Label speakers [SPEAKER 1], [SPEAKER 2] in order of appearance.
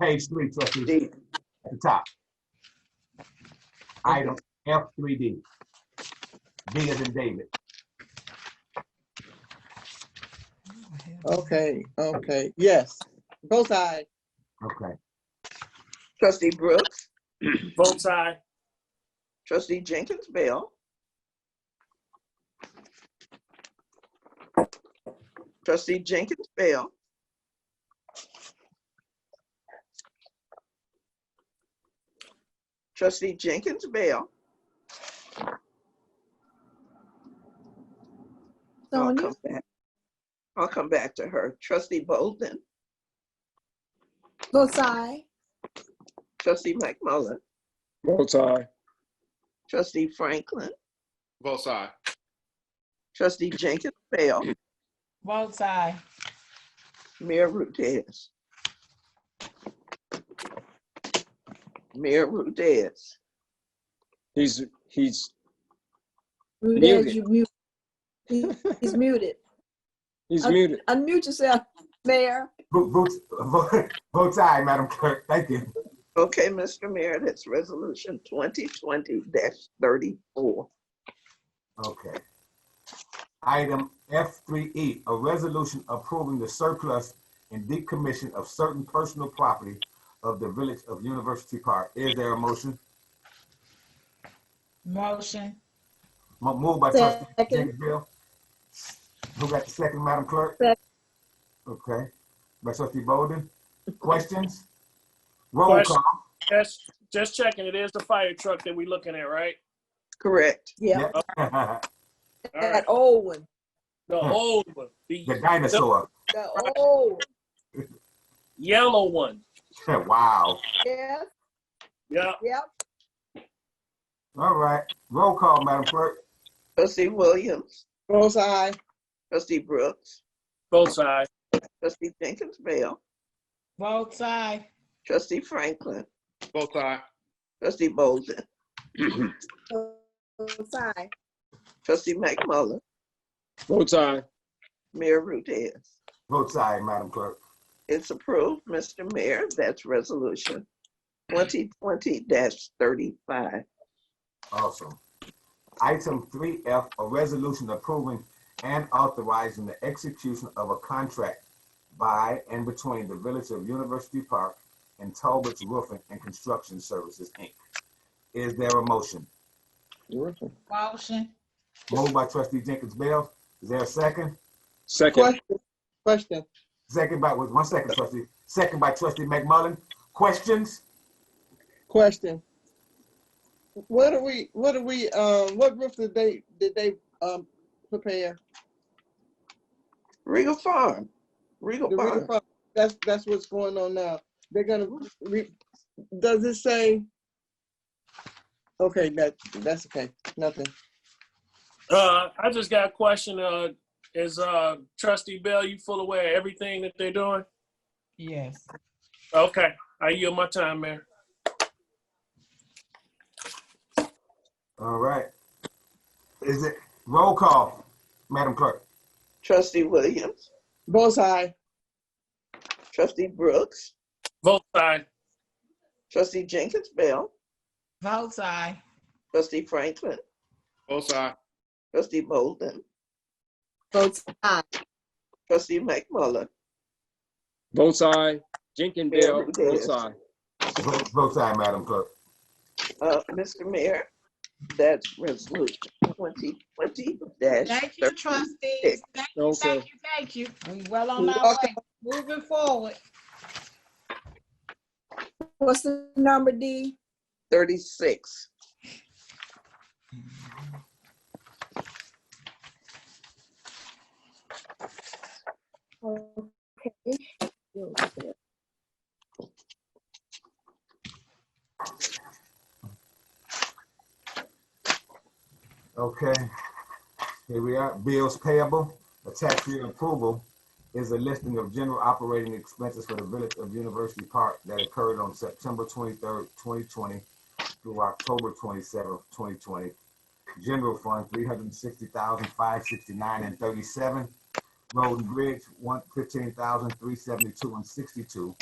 [SPEAKER 1] page three, trustees,
[SPEAKER 2] D,
[SPEAKER 1] at the top. Item F three D. D is in David.
[SPEAKER 3] Okay, okay,
[SPEAKER 4] Yes, both sides.
[SPEAKER 1] Okay,
[SPEAKER 2] trustee Brooks,
[SPEAKER 5] Both side.
[SPEAKER 2] trustee Jenkins Bell. Trustee Jenkins Bell. Trustee Jenkins Bell. I'll Oh,
[SPEAKER 4] Sonia,
[SPEAKER 2] come back. I'll come back to her. Trustee Bolden,
[SPEAKER 4] both sides.
[SPEAKER 2] trustee McMullen,
[SPEAKER 6] Both side.
[SPEAKER 2] trustee Franklin,
[SPEAKER 6] Both side.
[SPEAKER 2] trustee Jenkins Bell,
[SPEAKER 3] both side,
[SPEAKER 2] Mayor Rudez. Mayor Rudez,
[SPEAKER 6] He's, he's,
[SPEAKER 4] Rudez,
[SPEAKER 6] Muted.
[SPEAKER 4] you mute. He- He's muted.
[SPEAKER 6] he's
[SPEAKER 4] Okay.
[SPEAKER 6] muted.
[SPEAKER 4] Unmute yourself, Mayor.
[SPEAKER 1] vote, vote, vote- vote aye, Madam Clerk, thank you.
[SPEAKER 2] okay, Mr. Mayor, that's resolution twenty twenty thirty-four.
[SPEAKER 1] Okay. Item F three E, a resolution approving the surplus and decommission of certain personal property of the Village of University Park. Is there a motion?
[SPEAKER 3] motion,
[SPEAKER 1] Mo- Moved by trustee
[SPEAKER 4] Second.
[SPEAKER 1] Jenkins Bill. Who got the second, Madam Clerk?
[SPEAKER 4] Second.
[SPEAKER 1] Okay, by trustee Bowden. Questions? Roll
[SPEAKER 5] Question.
[SPEAKER 1] call.
[SPEAKER 5] Just, just checking. It is the fire truck that we looking at, right?
[SPEAKER 2] Correct,
[SPEAKER 4] Yeah,
[SPEAKER 1] The
[SPEAKER 5] All right.
[SPEAKER 4] that old one,
[SPEAKER 5] The old one, the
[SPEAKER 1] dinosaur.
[SPEAKER 4] the old,
[SPEAKER 5] yellow one.
[SPEAKER 1] Wow.
[SPEAKER 4] yes,
[SPEAKER 5] Yeah.
[SPEAKER 4] yep,
[SPEAKER 1] All right. Roll call, Madam Clerk.
[SPEAKER 2] trustee Williams,
[SPEAKER 4] both side.
[SPEAKER 2] trustee Brooks,
[SPEAKER 5] Both side.
[SPEAKER 2] trustee Jenkins Bell,
[SPEAKER 3] both side,
[SPEAKER 2] trustee Franklin,
[SPEAKER 6] Both side.
[SPEAKER 2] trustee Bolden,
[SPEAKER 4] Both side.
[SPEAKER 2] trustee McMullen,
[SPEAKER 6] Both side.
[SPEAKER 2] Mayor Rudez.
[SPEAKER 1] Vote aye, Madam Clerk.
[SPEAKER 2] It's approved, Mr. Mayor. That's resolution twenty twenty thirty-five.
[SPEAKER 1] Awesome. Item three F, a resolution approving and authorizing the execution of a contract by and between the Village of University Park and Talbot's Roofing and Construction Services, Inc. Is there a motion?
[SPEAKER 3] motion,
[SPEAKER 1] Moved by trustee Jenkins Bell. Is there a second?
[SPEAKER 6] Second.
[SPEAKER 4] question.
[SPEAKER 1] Second by, wait, one second, trustee. Second by trustee McMullen. Questions?
[SPEAKER 4] Question. What are we, what are we, um, what roof did they, did they, um, prepare?
[SPEAKER 2] Regal Farm, Regal
[SPEAKER 4] The
[SPEAKER 2] Farm.
[SPEAKER 4] redefi- That's, that's what's going on now. They're gonna, re- does it say? Okay, that, that's okay, nothing.
[SPEAKER 5] Uh, I just got a question. Uh, is uh, Trustee Bell, you full aware of everything that they're doing?
[SPEAKER 3] yes.
[SPEAKER 5] Okay. I yield my time, Mayor.
[SPEAKER 1] All right. Is it, roll call, Madam Clerk.
[SPEAKER 2] Trustee Williams,
[SPEAKER 4] Both side,
[SPEAKER 2] trustee Brooks,
[SPEAKER 5] Both side.
[SPEAKER 2] trustee Jenkins Bell,
[SPEAKER 3] Both side,
[SPEAKER 2] trustee Franklin,
[SPEAKER 6] Both side.
[SPEAKER 2] trustee Bolden,
[SPEAKER 4] both,
[SPEAKER 2] trustee McMullen,
[SPEAKER 6] Both side. Jenkins
[SPEAKER 2] Yeah,
[SPEAKER 6] Bell,
[SPEAKER 2] both
[SPEAKER 6] both
[SPEAKER 2] sides.
[SPEAKER 6] side.
[SPEAKER 1] Vote vote aye, Madam Clerk.
[SPEAKER 2] uh, Mr. Mayor. That's resolution twenty twenty
[SPEAKER 3] Thank you, trustees, thank you,
[SPEAKER 6] Okay.
[SPEAKER 3] thank you, thank you. We well on our way, moving forward,
[SPEAKER 7] What's the number, D?
[SPEAKER 2] thirty-six.
[SPEAKER 7] Okay.
[SPEAKER 1] Okay, here we are, bills payable, the tax year approval is a listing of general operating expenses for the Village of University Park that occurred on September twenty-third, twenty twenty through October twenty-seventh, twenty twenty. General Fund, three hundred and sixty thousand, five sixty-nine and thirty-seven. Road and Bridge, one fifteen thousand, three seventy-two and sixty-two.